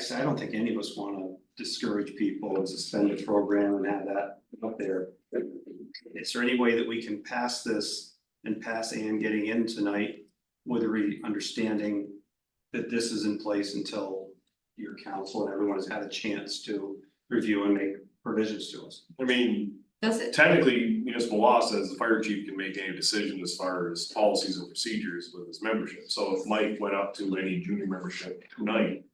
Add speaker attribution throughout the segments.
Speaker 1: said, I don't think any of us wanna discourage people and suspend the program and have that up there. Is there any way that we can pass this and pass Ann getting in tonight with a re- understanding that this is in place until your council and everyone has had a chance to review and make provisions to us?
Speaker 2: I mean,
Speaker 3: Does it,
Speaker 2: technically municipal law says the fire chief can make any decision as far as policies and procedures with his membership. So if Mike went up to any junior membership tonight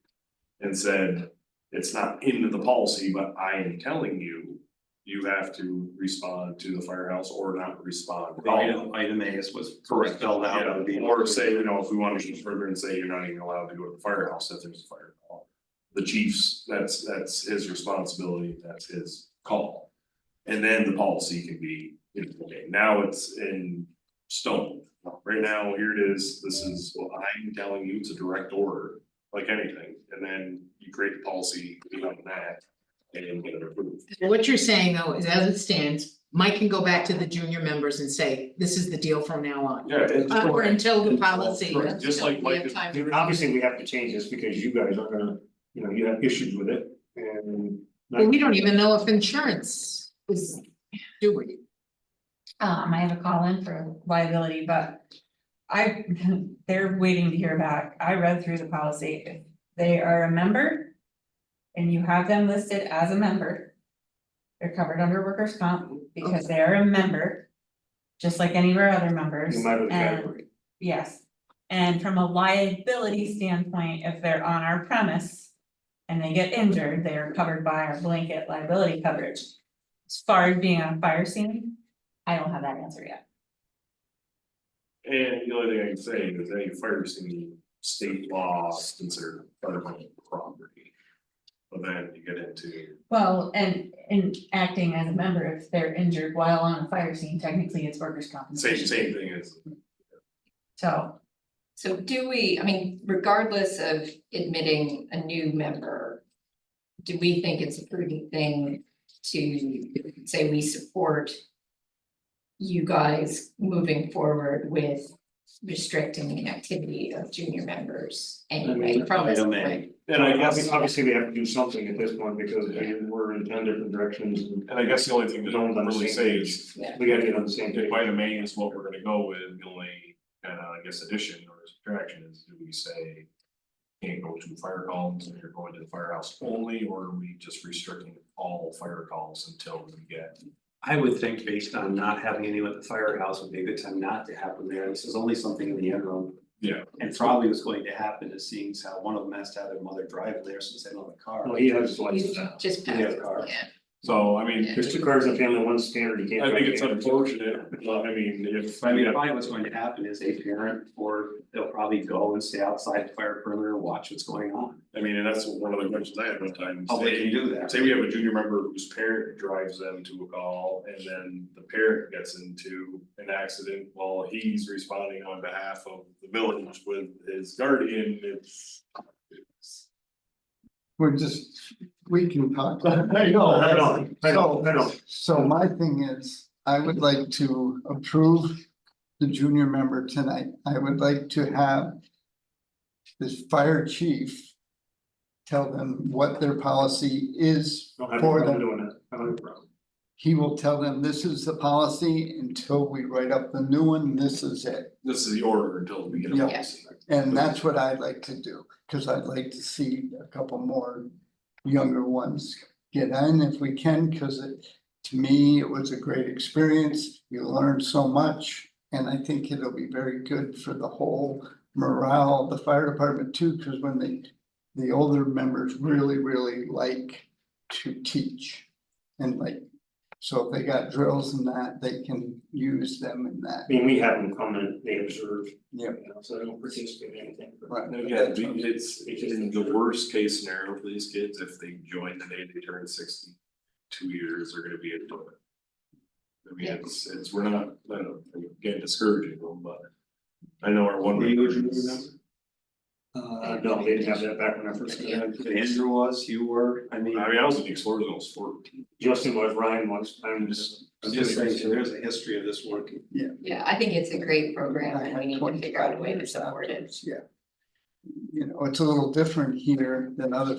Speaker 2: and said, it's not into the policy, but I am telling you, you have to respond to the firehouse or not respond.
Speaker 1: Item, item A is was
Speaker 2: Correct.
Speaker 1: spelled out. it would be-
Speaker 2: Yeah, or say, you know, if we want to go further and say you're not even allowed to go to the firehouse if there's a fire call. The chief's, that's, that's his responsibility, that's his call. And then the policy can be, you know, okay, now it's in stone. Right now, here it is, this is what I'm telling you, it's a direct order, like anything, and then you create the policy, you know, that. And get it approved.
Speaker 4: What you're saying though is as it stands, Mike can go back to the junior members and say, this is the deal from now on.
Speaker 2: Yeah. it's-
Speaker 4: Uh, Or until the policy.
Speaker 2: Correct, Just like
Speaker 4: until we
Speaker 2: Mike.
Speaker 4: have
Speaker 2: is-
Speaker 4: time
Speaker 5: I mean,
Speaker 4: to-
Speaker 5: Obviously, we have to change this because you guys are gonna, you know, you have issues with it and.
Speaker 4: Well, we don't even know if insurance is, do we?
Speaker 6: Um, I have a call in for liability, but I, they're waiting to hear back. I read through the policy. If They are a member and you have them listed as a member. They're covered under workers' comp because they are a member, just like any of our other members.
Speaker 5: No matter the
Speaker 6: And-
Speaker 5: category.
Speaker 6: Yes, and from a liability standpoint, if they're on our premise and they get injured, they are covered by our blanket liability coverage. As far as being on a fire scene, I don't have that answer yet.
Speaker 2: And the only thing I can say is any fire scene, state law is considered federal property. But then you get into,
Speaker 6: Well, and and acting as a member, if they're injured while on a fire scene, technically it's workers'
Speaker 2: same
Speaker 6: compensation,
Speaker 2: same thing as,
Speaker 6: so.
Speaker 3: so do we, I mean, regardless of admitting a new member, do we think it's a prudent thing to say we support you guys moving forward with restricting the activity of junior members anyway,
Speaker 5: mean,
Speaker 3: from this
Speaker 1: item A.
Speaker 3: point?
Speaker 2: and I guess,
Speaker 5: Obviously, obviously, we have to do something at this point because we we're in ten different directions and
Speaker 2: and I guess the only thing that I don't really say is.
Speaker 5: we gotta get on the same page.
Speaker 2: If item A is what we're gonna go with, the only, uh, I guess addition or subtraction is, do we say? Can't go to fire calls if you're going to the firehouse only, or are we just restricting all fire calls until we get?
Speaker 1: I would think based on not having anyone at the firehouse would be a good time not to have them there. This is only something in the interim.
Speaker 2: Yeah.
Speaker 1: And probably what's going to happen is seeing as how one of them has to have their mother drive there since they don't have a car.
Speaker 5: Well, he has his license
Speaker 3: You
Speaker 5: now.
Speaker 3: just
Speaker 1: Yeah,
Speaker 3: pass,
Speaker 1: car.
Speaker 3: yeah.
Speaker 2: So, I mean,
Speaker 5: There's two cars in the family, one's standard, you can't.
Speaker 2: I think
Speaker 5: drive
Speaker 2: it's
Speaker 5: the other.
Speaker 2: unfortunate, but I mean, if.
Speaker 1: I mean, probably what's going to happen is a parent or they'll probably go and stay outside the fire perimeter and watch what's going on.
Speaker 2: I mean, and that's one of the questions I had one time.
Speaker 1: Public Oh, can
Speaker 2: Say-
Speaker 1: do that.
Speaker 2: Say we have a junior member whose parent drives them to a call and then the parent gets into an accident while he's responding on behalf of the village with his guardian, it's.
Speaker 7: We're just, we can talk.
Speaker 5: I know, I know, I know, I know.
Speaker 7: So my thing is, I would like to approve the junior member tonight. I would like to have this fire chief tell them what their policy is
Speaker 5: Don't have a
Speaker 7: for
Speaker 5: problem
Speaker 7: them.
Speaker 5: doing that. I don't have a problem.
Speaker 7: He will tell them this is the policy until we write up the new one, this is it.
Speaker 2: This is the order until we get a
Speaker 7: Yeah.
Speaker 2: policy.
Speaker 7: And that's what I'd like to do, because I'd like to see a couple more younger ones get in if we can, because it, to me, it was a great experience. You learned so much, and I think it'll be very good for the whole morale of the fire department too, because when they, the older members really, really like to teach and like, so if they got drills and that, they can use them in that,
Speaker 5: I mean, we have them come and they observe.
Speaker 7: Yeah.
Speaker 5: you know, So they don't participate in anything.
Speaker 7: right?
Speaker 2: Yeah, it's, it's in the worst case scenario for these kids, if they join the day they turn sixty, two years, they're gonna be a donor. I mean, it's, it's, we're not, I don't, again, discouraging them, but I know our one.
Speaker 1: Were you a junior
Speaker 5: Uh, no, they didn't have that back when I first came in.
Speaker 1: Andrew was, you were, I mean,
Speaker 2: I mean, I was in the Explorers, when I was fourteen.
Speaker 5: Justin was, Ryan was, I'm just.
Speaker 1: I'm just saying, so there's a history of this working.
Speaker 3: Yeah, I think it's a great program
Speaker 7: I
Speaker 3: and
Speaker 7: had
Speaker 3: we need to figure out a way to
Speaker 7: 25
Speaker 3: support it.
Speaker 7: years afterwards, Yeah. You know, it's a little different here than other